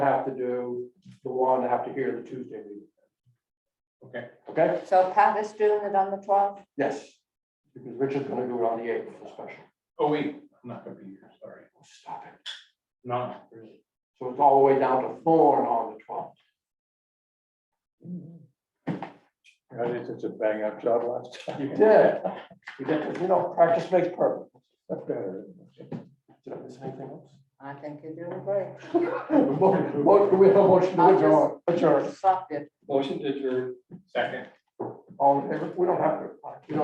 have to do the one, have to hear the Tuesday meeting. Okay. Okay, So Pat is doing it on the twelfth? yes, because Richard's gonna do it on the eighth for special. Oh, Oh, wait, I'm not gonna be here, sorry. Stop it. No, really. So it's all the way down to Thorn on the twelfth. I did such a bang up job last time. You did. You did, you know, practice makes perfect. That's better. Did I miss anything else? I think you're doing great. Mo- mo- we have a motion to I'll just- adjourn, adjourn. Sucked it. Motion to adjourn. Second. All in favor? We don't have to. You don't